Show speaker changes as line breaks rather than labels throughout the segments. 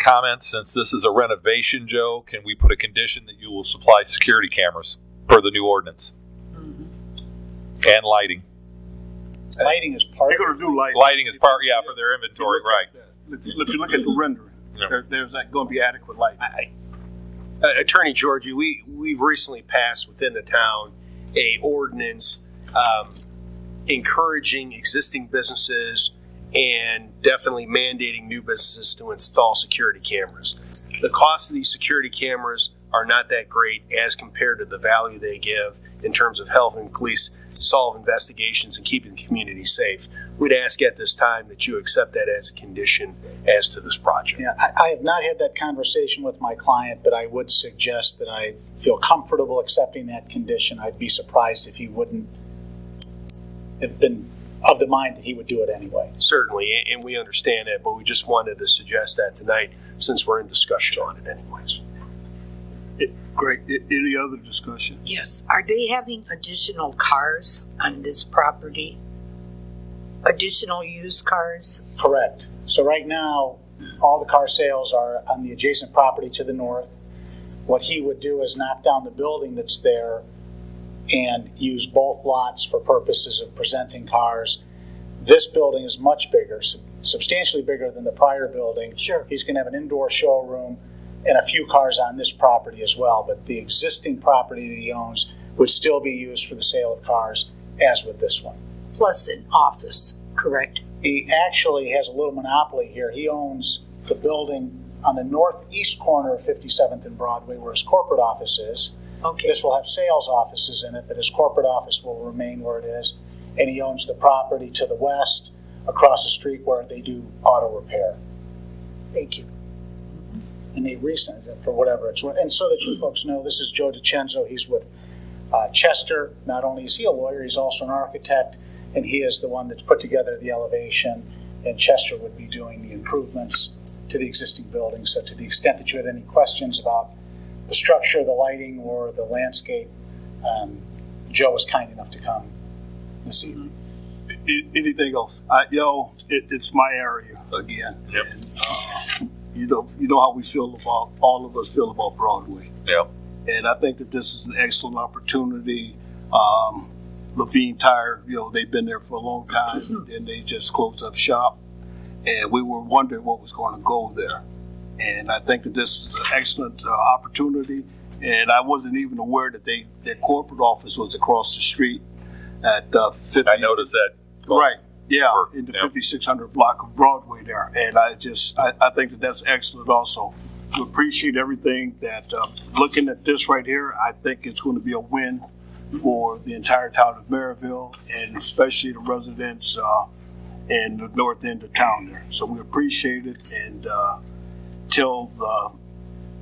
comments, since this is a renovation, Joe, can we put a condition that you will supply security cameras per the new ordinance? And lighting.
Lighting is part
They're gonna
of
do lighting.
Lighting is part, yeah, for their inventory, right.
If you look at- if you look at the rendering,
Yeah. Uh,
there, there's not gonna be adequate light.
I- I- uh, Attorney Georgie, we, we've recently passed within the town a ordinance um, encouraging existing businesses and definitely mandating new businesses to install security cameras. The cost of these security cameras are not that great as compared to the value they give in terms of helping police solve investigations and keeping the community safe. We'd ask at this time that you accept that as a condition as to this project.
Yeah, I, I have not had that conversation with my client, but I would suggest that I feel comfortable accepting that condition. I'd be surprised if he wouldn't have been of the mind that he would do it anyway.
Certainly, a- and we understand that, but we just wanted to suggest that tonight since we're in discussion on it anyways.
Great. A- Any other discussion?
Yes, are they having additional cars on this property? Additional used cars?
Correct. So right now, all the car sales are on the adjacent property to the north. What he would do is knock down the building that's there and use both lots for purposes of presenting cars. This building is much bigger, sub- substantially bigger than the prior building.
Sure.
He's going to have an indoor showroom and a few cars on this property as well, but the existing property that he owns would still be used for the sale of cars, as with this one
Plus an office, correct?
he actually has a little monopoly here. He owns the building on the northeast corner of 57th and Broadway where his corporate office is.
Okay,
This will have sales offices in it, but his corporate office will remain where it is. And he owns the property to the west across the street where they do auto repair.
thank you.
And they recent it for whatever it's worth. And so that you folks know, this is Joe DiCenzo. He's with uh, Chester. Not only is he a lawyer, he's also an architect, and he is the one that's put together the elevation. And Chester would be doing the improvements to the existing building. So, to the extent that you had any questions about the structure, the lighting, or the landscape, um, Joe was kind enough to come this evening.
A- Anything else? I, yo, it, it's my area again.
Yep.
And, uh, You know, you know how we feel about, all of us feel about Broadway.
Yeah.
And I think that this is an excellent opportunity. Um, Levine Tire, you know, they've been there for a long time and they just closed up shop. And we were wondering what was going to go there. And I think that this is an excellent uh, opportunity. And I wasn't even aware that they, their corporate office was across the street at uh, 50.
I noticed that.
Right, yeah, in the
Yeah.
5600 block of Broadway there. And I just, I, I think that that's excellent also. We appreciate everything that, uh, looking at this right here, I think it's going to be a win for the entire town of Maryville and especially the residents, uh, in the north end of town there. So we appreciate it and, uh, tell the,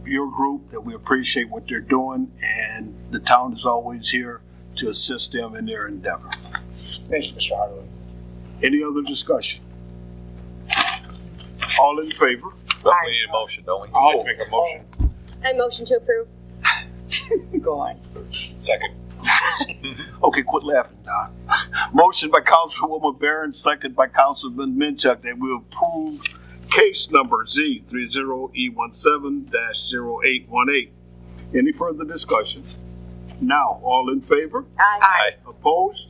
your group that we appreciate what they're doing and the town is always here to assist them in their endeavor.
Thank you, Mr. Hardaway.
Any other discussion? All in favor?
But we need a motion, don't we?
I'd like to make a motion.
I motion to approve.
Go on.
Second.
Okay, quit laughing, Don. Motion by Councilwoman Barron, second by Councilman Minchuk, that we approve case number Z three zero E one seven dash zero eight one eight. Any further discussion? Now, all in favor?
Aye.
Opposed?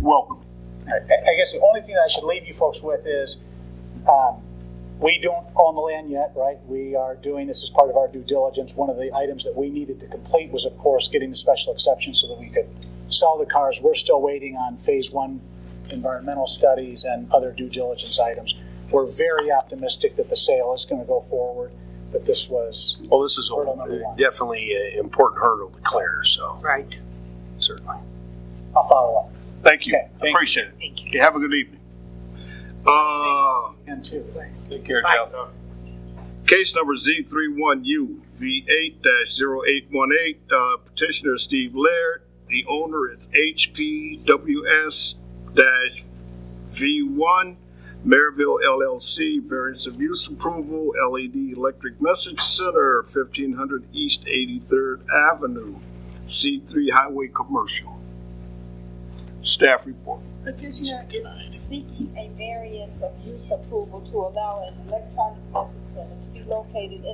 Welcome.
I I guess the only thing that I should leave you folks with is, um, we don't own the land yet, right? We are doing this as part of our due diligence. One of the items that we needed to complete was, of course, getting the special exception so that we could sell the cars. We're still waiting on phase one environmental studies and other due diligence items. We're very optimistic that the sale is going to go forward, but this was
Well, this is
Hurdle number one.
definitely an important hurdle to clear, so
Right,
certainly.
a follow-up.
Thank you.
Okay, thank you.
Appreciate it.
thank you.
Okay, Have a good evening. Uh,
And two.
Take care,
Bye.
Joe.
Case number Z31U V8-0818, uh, petitioner Steve Laird. The owner is HPWS-V1, Maryville LLC, variance of use approval, LED electric message center, 1500 East 83rd Avenue, C3 Highway Commercial. Staff report.
Petitioner is seeking a variance of use approval to allow an electronic message center to be be located in